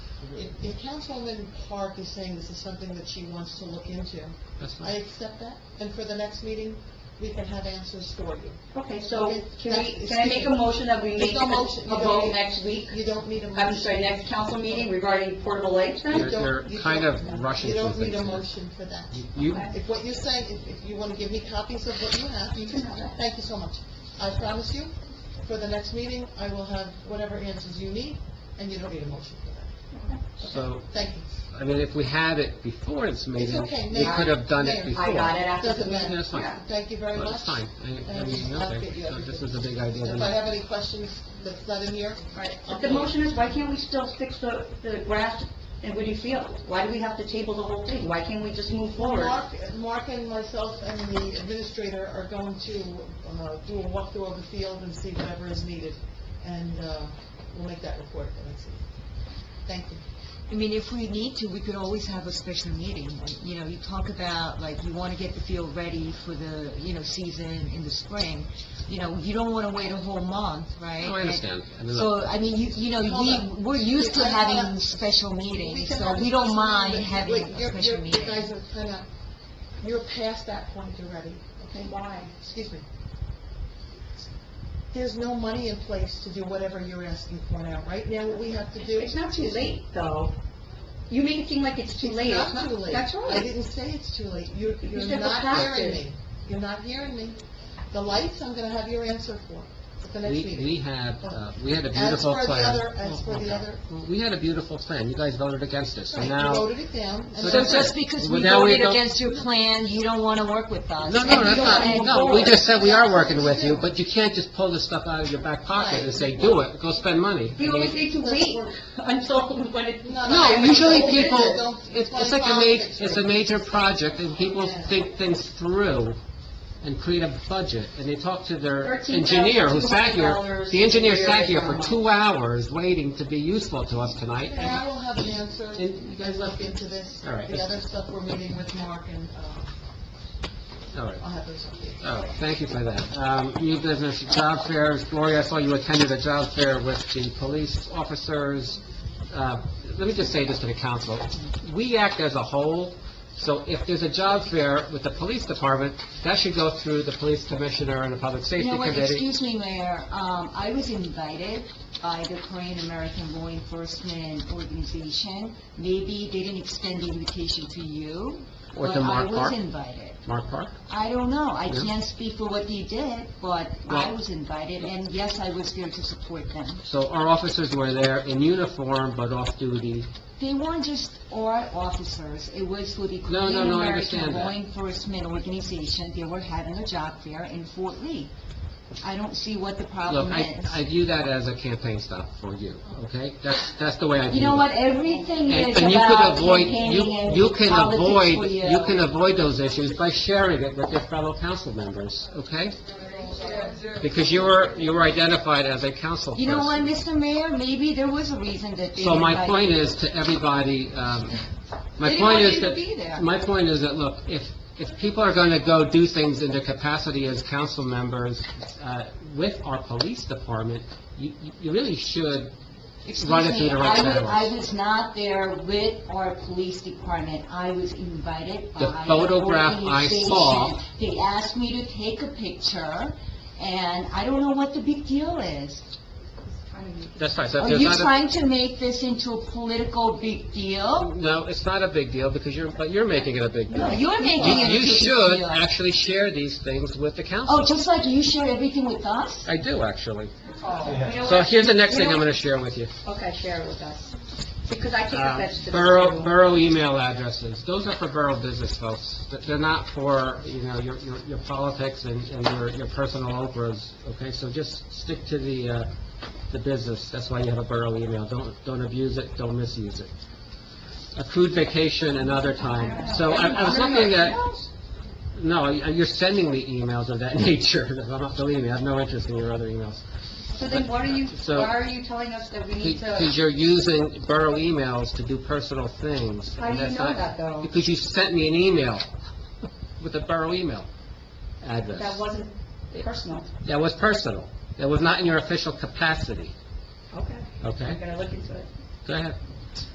If, if Councilwoman Clark is saying this is something that she wants to look into, That's I fine. accept that, and for the next meeting, we can have answers for you. Okay, so Okay, can we, that's- can I make a motion that we There's make no a motion. a You don't vote need- next week? You don't need a motion. I'm sorry, next council meeting regarding Portable Lakes You then? They're- don't- they're you kind don't- of rushing You don't through need a things here. motion for that. You, Okay. If what you're saying, if, if you wanna give me copies of what you have, you can have that. Thank you so much. I promise you, for the next meeting, I will have whatever answers you need, and you don't need a motion for that. so, Thank you. I mean, if we had it before this meeting, okay, we Mayor. could have done it Mayor. before. I got it after the Doesn't meeting. matter. That's fine. Yeah. Thank you very But much. it's fine. I- I And mean, I'll nothing. get you So this everything. is a big idea. If I have any questions that's not in here, Right, I'll but the motion is, why can't we still fix the, the grass in Woody Field? Why do we have to table the whole thing? Why can't we just move forward? Mark, Mark and myself and the administrator are going to, uh, do a walkthrough of the field and see whatever is needed, and, uh, we'll make that report at the next meeting. Thank you. I mean, if we need to, we could always have a special meeting. You know, you talk about, like, you want to get the field ready for the, you know, season in the spring. You know, you don't want to wait a whole month, right? No, I understand. I mean, So, I mean, you, you know, Hold on. we, we're used to I don't wanna- having special meetings, can so have a we don't special mind meeting, but having wait, a you're- special you're- meeting. You guys are kind of, you're past that point already, okay? Why? Excuse me. There's no money in place to do whatever you're asking for now. Right now, what we have to do... It's not too is- late, though. You make it seem like it's too late. It's not too late. That's I right. didn't say it's too late. You're, you're said the not fact hearing is- me. You're not hearing me. The lights, I'm gonna have your answer for at the next We, we meeting. had, uh, we had a As beautiful for the plan. other, as for the other, Well, We had a beautiful plan. You guys voted against it, so right, you now... voted it down. and So So that's just it. because Well, we now we voted don't- against your plan, you don't want to work with us? No, and no, you that's don't wanna not, move no, we forward. just said we are working with you, but you can't just pull this stuff out of your back pocket and say, do it, go spend money. We always need to wait until when it... No, usually people, Don't- it's it's like a ma, politics, it's a right? major project, and people think things through and create a budget, and they talk to their engineer who sat here, $13,200 the engineer sat a here for month. two hours waiting to be useful to us tonight, And I and will have an answer. And You guys look into this. All right. The other stuff, we're meeting with Mark and, uh, all right. I'll have those updates. Oh, thank you for that. Um, New business, job fairs. Gloria, I saw you attended a job fair with the police officers. Uh, Let me just say this to the council. We act as a whole, so if there's a job fair with the police department, that should go through the police commissioner and the public You safety know what, committee. excuse me, Mayor, um, I was invited by the Korean American Law Enforcement Organization. Maybe they didn't extend the invitation to you, Or but to I Mark was Park. invited. Mark Park? I don't know, I Yeah. can't speak for what they did, but I Well- was invited, and yes, I was there to support them. So our officers were there in uniform but off duty. They weren't just our officers, it was for the No, Korean no, no, I American understand Law that. Enforcement Organization. They were having a job fair in Fort Lee. I don't see what the Look, problem I is. I view that as a campaign stop for you, okay? That's that's the way I view it. You know what, everything And is and you can about avoid, campaigning you, and you can politics for avoid, you. you can avoid those issues by sharing it with your fellow council members, okay? Because you were, you were identified as a council You know what, person. Mr. Mayor, maybe there was a reason that they... So my invited- point is to everybody, um, They my point didn't want is you to that, be there. my point is that, look, if, if people are gonna go do things in their capacity as council members, uh, with our police department, you, you- you really should, Excuse run it through me, the right I was- channels. I was not there with our police department, I was invited by... The photograph I saw- organization. They asked me to take a picture, and I don't know what the big deal is. that's right, so if Are there's Oh, you not a- trying to make this into a political big deal? No, it's not a big deal, because you're, but you're making it a big deal. No, You're making You it you into a should big deal. actually share these things with the Oh, council. just like you share everything with us? I do, actually. Oh. You know So what? here's the next You thing know I'm going to share with you. what? Okay, share it with us, because I take Uh, offense to this. Borough, too. borough email addresses, those are for borough business folks. Th- They're not for, you know, your, your your politics and, and your, your personal operas, okay? So just stick to the, uh, the business, that's why you have a borough email. Don't, don't abuse it, don't misuse it. Accrued vacation another time. So I I was looking at, Oh, No, you- you're sending me emails of that nature. I'm not deleting it. I have no interest in your other emails. So then what are you, So- why are you telling us that we need Because to, you're using borough emails to do personal things. How do you That's know not- that, though? Because you sent me an email with a borough email that address. wasn't personal? That was personal. That was not in your official capacity, Okay, okay? I'm gonna look into it. Go ahead.